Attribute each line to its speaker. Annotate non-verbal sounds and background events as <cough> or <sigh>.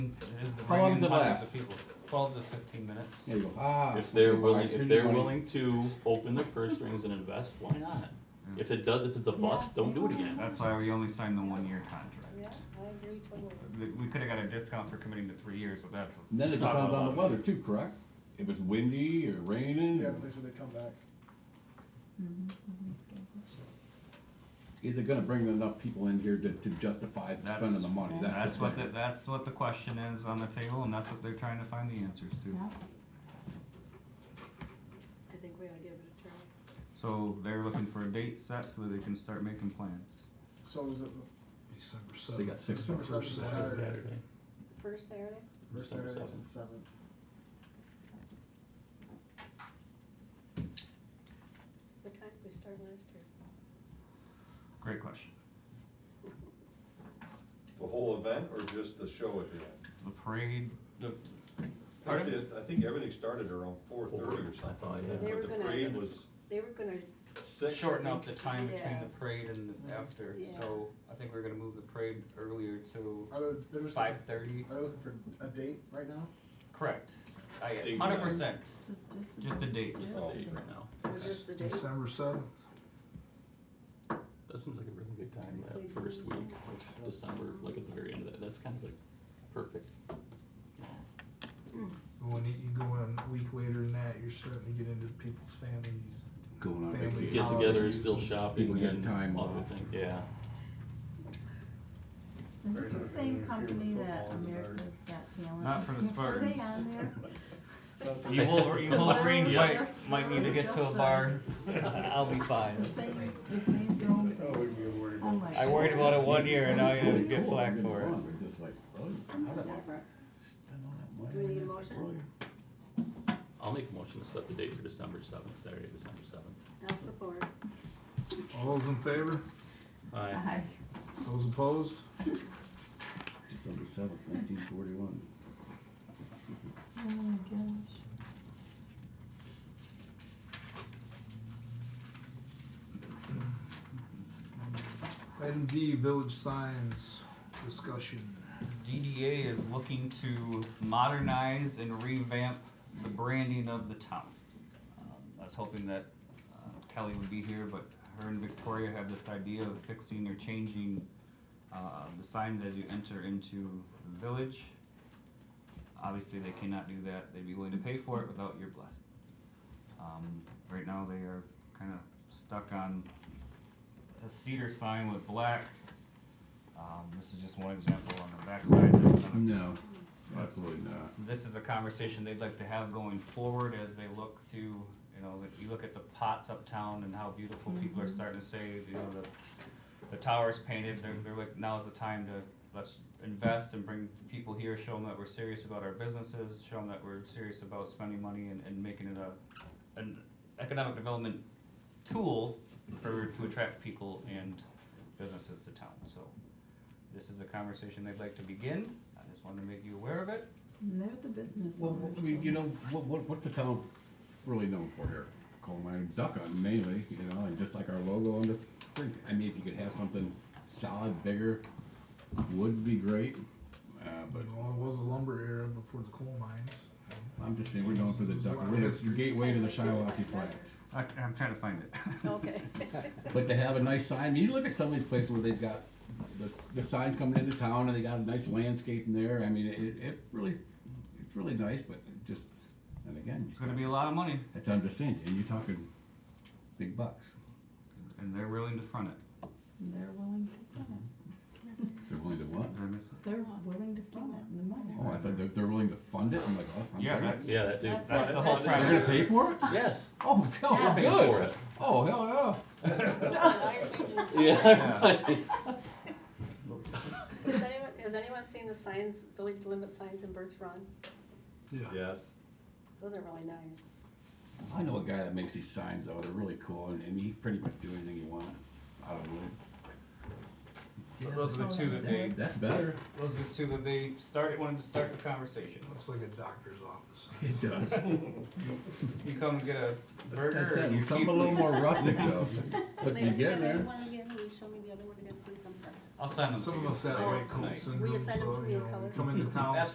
Speaker 1: is the
Speaker 2: How long
Speaker 1: bringing
Speaker 2: does it
Speaker 1: money to
Speaker 2: last?
Speaker 1: people, twelve to fifteen minutes.
Speaker 2: There you go.
Speaker 3: Ah.
Speaker 4: If they're
Speaker 2: Buy
Speaker 4: willing, if
Speaker 2: big
Speaker 4: they're
Speaker 2: money.
Speaker 4: willing to open their purse strings and invest, why not? If it does, if it's a bust, don't do it again.
Speaker 5: That's why we only signed the one-year contract.
Speaker 6: Yeah, I agree totally.
Speaker 5: We, we could've got a discount for committing to three years, but that's,
Speaker 2: Then it
Speaker 4: Not
Speaker 2: depends on the
Speaker 4: allowed.
Speaker 2: weather too, correct? If it's windy or raining,
Speaker 3: Yeah, but they said they come back.
Speaker 2: is it gonna bring enough people in here to, to justify
Speaker 5: That's-
Speaker 2: spending the money? That's the
Speaker 5: that's what, the-
Speaker 2: thing.
Speaker 5: that's what the question is on the table, and that's what they're trying to find the answers to.
Speaker 6: I think we ought to give it a try.
Speaker 5: So they're looking for a date set so that they can start making plans.
Speaker 3: So is it
Speaker 7: December
Speaker 2: So you got
Speaker 7: seventh.
Speaker 2: six
Speaker 3: December
Speaker 2: months.
Speaker 3: seventh is Saturday,
Speaker 4: Saturday.
Speaker 6: First Saturday?
Speaker 3: the first
Speaker 4: December
Speaker 3: Saturday is the seventh.
Speaker 6: What time did we start last year?
Speaker 5: Great question.
Speaker 8: The whole event or just the show at the end?
Speaker 5: The parade,
Speaker 4: The-
Speaker 8: I
Speaker 5: Pardon?
Speaker 8: did- I think everything started around four thirty or
Speaker 4: I thought,
Speaker 8: something.
Speaker 4: yeah.
Speaker 6: They were
Speaker 8: But the
Speaker 6: gonna-
Speaker 8: parade was
Speaker 6: They were gonna,
Speaker 8: six.
Speaker 1: Shorten
Speaker 8: <laughs>
Speaker 1: up the time between
Speaker 6: Yeah.
Speaker 1: the parade and the after,
Speaker 6: Yeah.
Speaker 1: so I think we're gonna move the parade earlier to
Speaker 3: Are they, they're just
Speaker 1: five
Speaker 3: looking-
Speaker 1: thirty.
Speaker 3: are they looking for a date right now?
Speaker 1: Correct. I,
Speaker 8: Big
Speaker 1: hundred
Speaker 8: time.
Speaker 1: percent.
Speaker 5: just a date.
Speaker 8: Just
Speaker 4: Oh,
Speaker 8: the date.
Speaker 4: right now.
Speaker 6: it was just the date.
Speaker 7: December seventh.
Speaker 4: That seems like a really good time, that first week of December, like at the very end of that, that's kind of like perfect.
Speaker 7: When you you go in a week later than that, you're starting to get into people's families.
Speaker 2: Going on
Speaker 7: Family
Speaker 2: vacation.
Speaker 4: Get together, still shopping
Speaker 2: People get
Speaker 4: and
Speaker 2: time
Speaker 4: other
Speaker 2: off.
Speaker 4: things, yeah.
Speaker 9: Is this the same company that America's Got Talent?
Speaker 5: Not for the Spartans.
Speaker 9: <laughs> Are they on there?
Speaker 5: You Wolver- you <laughs> Wolverines might, might need to get to a bar. <laughs>
Speaker 1: I'll be
Speaker 9: The
Speaker 1: fine.
Speaker 9: same, the same Oh film? I'm like,
Speaker 5: I worried about it one year and now you're gonna
Speaker 2: Really
Speaker 5: get
Speaker 2: cool.
Speaker 5: flack
Speaker 2: Really
Speaker 5: for it.
Speaker 2: fun. They're just like, oh, how did I spend all that money?
Speaker 6: Do we need a
Speaker 2: on that
Speaker 6: motion?
Speaker 2: earlier?
Speaker 4: I'll make a motion to set the date for December seventh, Saturday, December seventh.
Speaker 6: <laughs> I'll support.
Speaker 7: All those in favor?
Speaker 5: Uh,
Speaker 4: Aye.
Speaker 9: Hi.
Speaker 7: Those opposed?
Speaker 2: December seventh, nineteen forty-one.
Speaker 9: Oh my gosh.
Speaker 7: Item D, village signs discussion.
Speaker 5: DDA is looking to modernize and revamp the branding of the town. Um, I was hoping that uh, Kelly would be here, but her and Victoria have this idea of fixing or changing uh, the signs as you enter into the village. Obviously, they cannot do that. They'd be willing to pay for it without your blessing. Um, right now, they are kind of stuck on a cedar sign with black. Um, this is just one example on the backside. There's another
Speaker 2: No, absolutely not.
Speaker 5: this is a conversation they'd like to have going forward as they look to, you know, if you look at the pots uptown and how beautiful people are starting to say, you know, the, the tower's painted, they're, they're like, now's the time to, let's invest and bring people here, show them that we're serious about our businesses, show them that we're serious about spending money and, and making it a, an economic development tool for, to attract people and businesses to town, so. This is a conversation they'd like to begin, I just wanted to make you aware of it.
Speaker 9: And they're the business
Speaker 2: Well,
Speaker 9: owners.
Speaker 2: I mean, you
Speaker 9: so-
Speaker 2: know, what, what, what's the town really known for here? Coal mine, duck hunting mainly, you know, and just like our logo on the thing. I mean, if you could have something solid, bigger, would be great. Uh, but
Speaker 7: But well, it was a lumber era before the coal mines.
Speaker 2: I'm just saying, we're going for the duck, we're the your gateway to the Shiawassee Flats.
Speaker 5: I, I'm trying to find it. <laughs>
Speaker 6: Okay. <laughs>
Speaker 2: But to have a nice sign, I mean, you look at some of these places where they've got the, the signs coming into town and they got a nice landscape in there. I mean, it, it really, it's really nice, but it just, and again,
Speaker 5: It's gonna be a lot of money,
Speaker 2: that's what I'm just saying, and you're talking big bucks.
Speaker 5: and they're willing to front it.
Speaker 9: And They're willing to fund it.
Speaker 2: They're willing to what?
Speaker 5: Did I miss it?
Speaker 9: They're willing to fund it, and the money.
Speaker 2: Oh, I thought they're, they're willing to fund it. I'm like, oh, I'm
Speaker 5: Yeah,
Speaker 2: great.
Speaker 5: that's-
Speaker 4: Yeah, that dude.
Speaker 5: That's the whole
Speaker 2: They're gonna
Speaker 5: premise.
Speaker 2: pay for it?
Speaker 4: Yes.
Speaker 2: Oh, <laughs> hell,
Speaker 9: Yeah.
Speaker 2: we're
Speaker 4: Pay
Speaker 2: good.
Speaker 4: for it.
Speaker 2: Oh, hell
Speaker 6: Now you're changing.
Speaker 4: Yeah. <laughs>
Speaker 6: Has anyone, has anyone seen the signs, village limit signs in Birch Run?
Speaker 8: Yes.
Speaker 6: Those are really nice.
Speaker 2: yeah. I know a guy that makes these signs though. They're really cool, and, and he pretty much do anything you want out of wood.
Speaker 5: Those are the two that they,
Speaker 2: That's better.
Speaker 5: those are the two that they started, wanted to start the conversation.
Speaker 7: Looks like a doctor's office.
Speaker 2: It does.
Speaker 5: You come and get a
Speaker 2: That's
Speaker 5: burger or
Speaker 2: it.
Speaker 5: you
Speaker 2: Something
Speaker 5: keep.
Speaker 2: a little more
Speaker 5: <laughs>
Speaker 2: rustic though. But you get there.
Speaker 6: One again, will you show me the other one again, please, I'm sorry.
Speaker 5: I'll sign them. to
Speaker 7: Some
Speaker 5: you.
Speaker 7: of us have
Speaker 5: Oh,
Speaker 7: white coat
Speaker 5: tonight.
Speaker 7: syndrome,
Speaker 6: Reassign them to
Speaker 7: so,
Speaker 6: be
Speaker 7: you
Speaker 6: a
Speaker 7: know,
Speaker 6: color.
Speaker 7: we come into town,
Speaker 5: That's